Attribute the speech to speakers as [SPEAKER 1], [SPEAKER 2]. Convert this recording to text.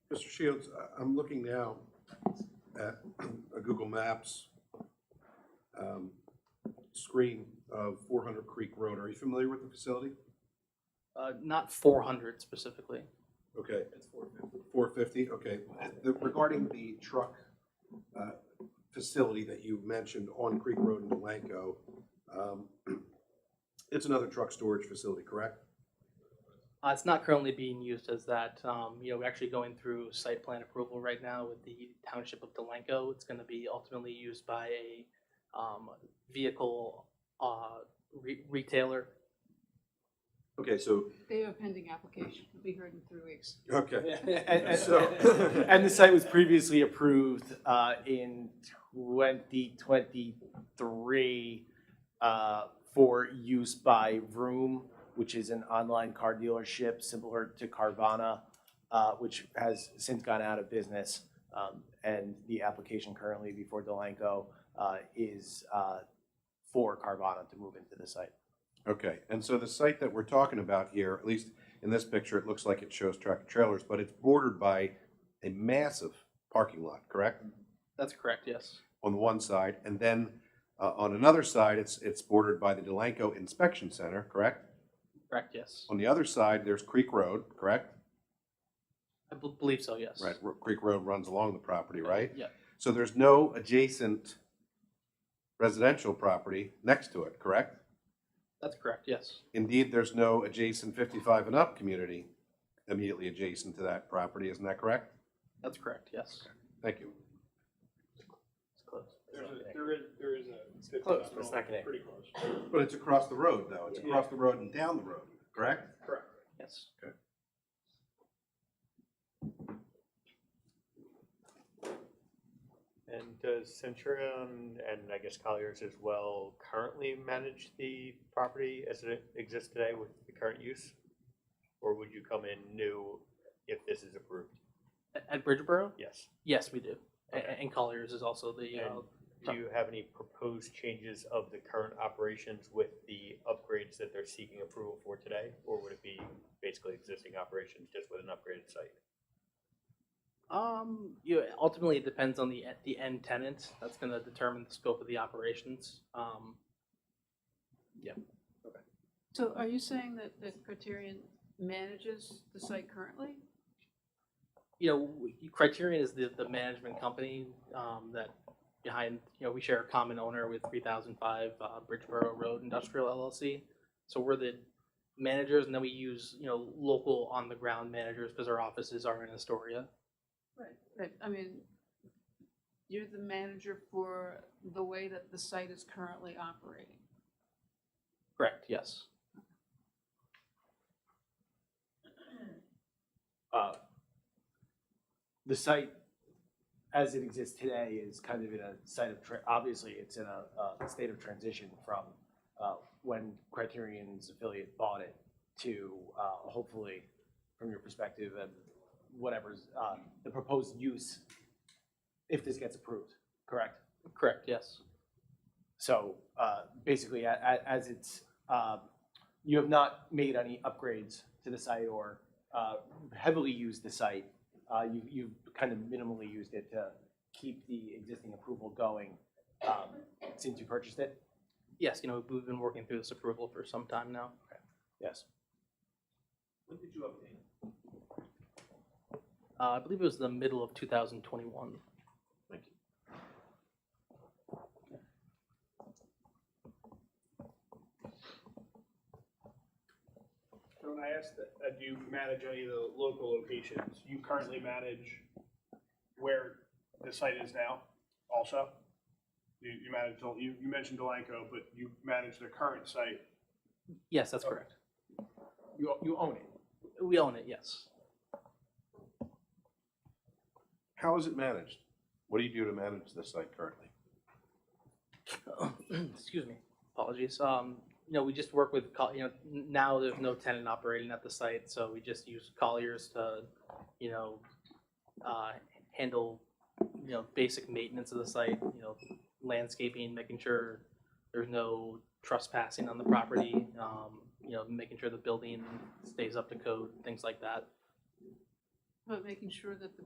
[SPEAKER 1] Mr. Shields, I- I'm looking now at a Google Maps um, screen of 400 Creek Road. Are you familiar with the facility?
[SPEAKER 2] Uh, not four hundred specifically.
[SPEAKER 1] Okay. It's 450. 450, okay. The- Regarding the truck uh, facility that you mentioned on Creek Road in Delanco, um, it's another truck storage facility, correct?
[SPEAKER 2] Uh, it's not currently being used as that. Um, you know, we're actually going through site plan approval right now with the township of Delanco. It's gonna be ultimately used by a, um, vehicle, uh, re- retailer.
[SPEAKER 1] Okay, so,
[SPEAKER 3] They have a pending application. It'll be heard in three weeks.
[SPEAKER 1] okay.
[SPEAKER 4] And
[SPEAKER 1] So-
[SPEAKER 4] and the site was previously approved uh, in 2023 uh, for use by Vroom, which is an online car dealership similar to Carvana, uh, which has since gone out of business. Um, And the application currently before Delanco uh, is uh, for Carvana to move into the site.
[SPEAKER 1] Okay, and so the site that we're talking about here, at least in this picture, it looks like it shows track and trailers, but it's bordered by a massive parking lot, correct?
[SPEAKER 2] That's correct, yes.
[SPEAKER 1] On the one side, and then uh, on another side, it's, it's bordered by the Delanco Inspection Center, correct?
[SPEAKER 2] Correct, yes.
[SPEAKER 1] On the other side, there's Creek Road, correct?
[SPEAKER 2] I bel- believe so, yes.
[SPEAKER 1] Right, Ro- Creek Road runs along the property, right?
[SPEAKER 2] Yeah,
[SPEAKER 1] So there's no adjacent residential property next to it, correct?
[SPEAKER 2] that's correct, yes.
[SPEAKER 1] Indeed, there's no adjacent 55 and up community immediately adjacent to that property, isn't that correct?
[SPEAKER 2] That's correct, yes.
[SPEAKER 1] Thank you.
[SPEAKER 2] It's close.
[SPEAKER 5] There's a, there is, there is a. fifty
[SPEAKER 4] Close,
[SPEAKER 5] mile,
[SPEAKER 4] but it's not connected.
[SPEAKER 5] Pretty close.
[SPEAKER 1] But it's across the road, though. It's across the road and down the road, correct?
[SPEAKER 5] Correct.
[SPEAKER 2] Yes.
[SPEAKER 6] And does Centurion and I guess Colliers as well currently manage the property as it exists today with the current use? Or would you come in new if this is approved?
[SPEAKER 2] At- At Bridgeboro?
[SPEAKER 6] Yes.
[SPEAKER 2] Yes, we do. A-
[SPEAKER 6] Okay.
[SPEAKER 2] And Colliers is also the, uh,
[SPEAKER 6] And do you have any proposed changes of the current operations with the upgrades that they're seeking approval for today? Or would it be basically existing operations just with an upgraded site?
[SPEAKER 2] Um, you know, ultimately it depends on the the end tenant. That's going to determine the scope of the operations. Um,
[SPEAKER 3] So are you saying that, that Criterion manages the site currently?
[SPEAKER 2] you know, we- Criterion is the the management company um, that behind you know we share a common owner with 3005 uh, Bridgeboro Road Industrial LLC. So we're the managers, and then we use you know local on the ground managers because our offices are in Astoria.
[SPEAKER 3] Right. Right, I mean, you're the manager for the way that the site is currently operating.
[SPEAKER 2] Correct. Yes.
[SPEAKER 4] uh, the site as it exists today is kind of in a site of, tra- obviously, it's in a, a state of transition from uh, when Criterion's affiliate bought it to uh, hopefully, from your perspective, and whatever's, uh, the proposed use, if this gets approved, correct?
[SPEAKER 2] Correct. Yes.
[SPEAKER 4] So uh, basically, a- a- as it's, um, you have not made any upgrades to the site or uh, heavily used the site. Uh, you- You've kind of minimally used it to keep the existing approval going um, since you purchased it?
[SPEAKER 2] Yes. You know we've been working through this approval for some time now.
[SPEAKER 4] Yes.
[SPEAKER 2] Uh, I believe it was the middle of 2021.
[SPEAKER 5] So when I asked that, that you manage any of the local locations, you currently manage where the site is now also? You, you manage, Del- you, you mentioned Delanco, but you manage the current site.
[SPEAKER 2] Yes, that's correct.
[SPEAKER 4] You you own it?
[SPEAKER 2] We own it, yes.
[SPEAKER 1] How is it managed? What do you do to manage the site currently?
[SPEAKER 2] Excuse me, apologies. Um, you know, we just work with, Col- you know, n- now there's no tenant operating at the site, so we just use Colliers to, you know, uh, handle, you know, basic maintenance of the site, you know, landscaping, making sure there's no trespassing on the property, um, you know, making sure the building stays up to code, things like that.
[SPEAKER 3] But making sure that the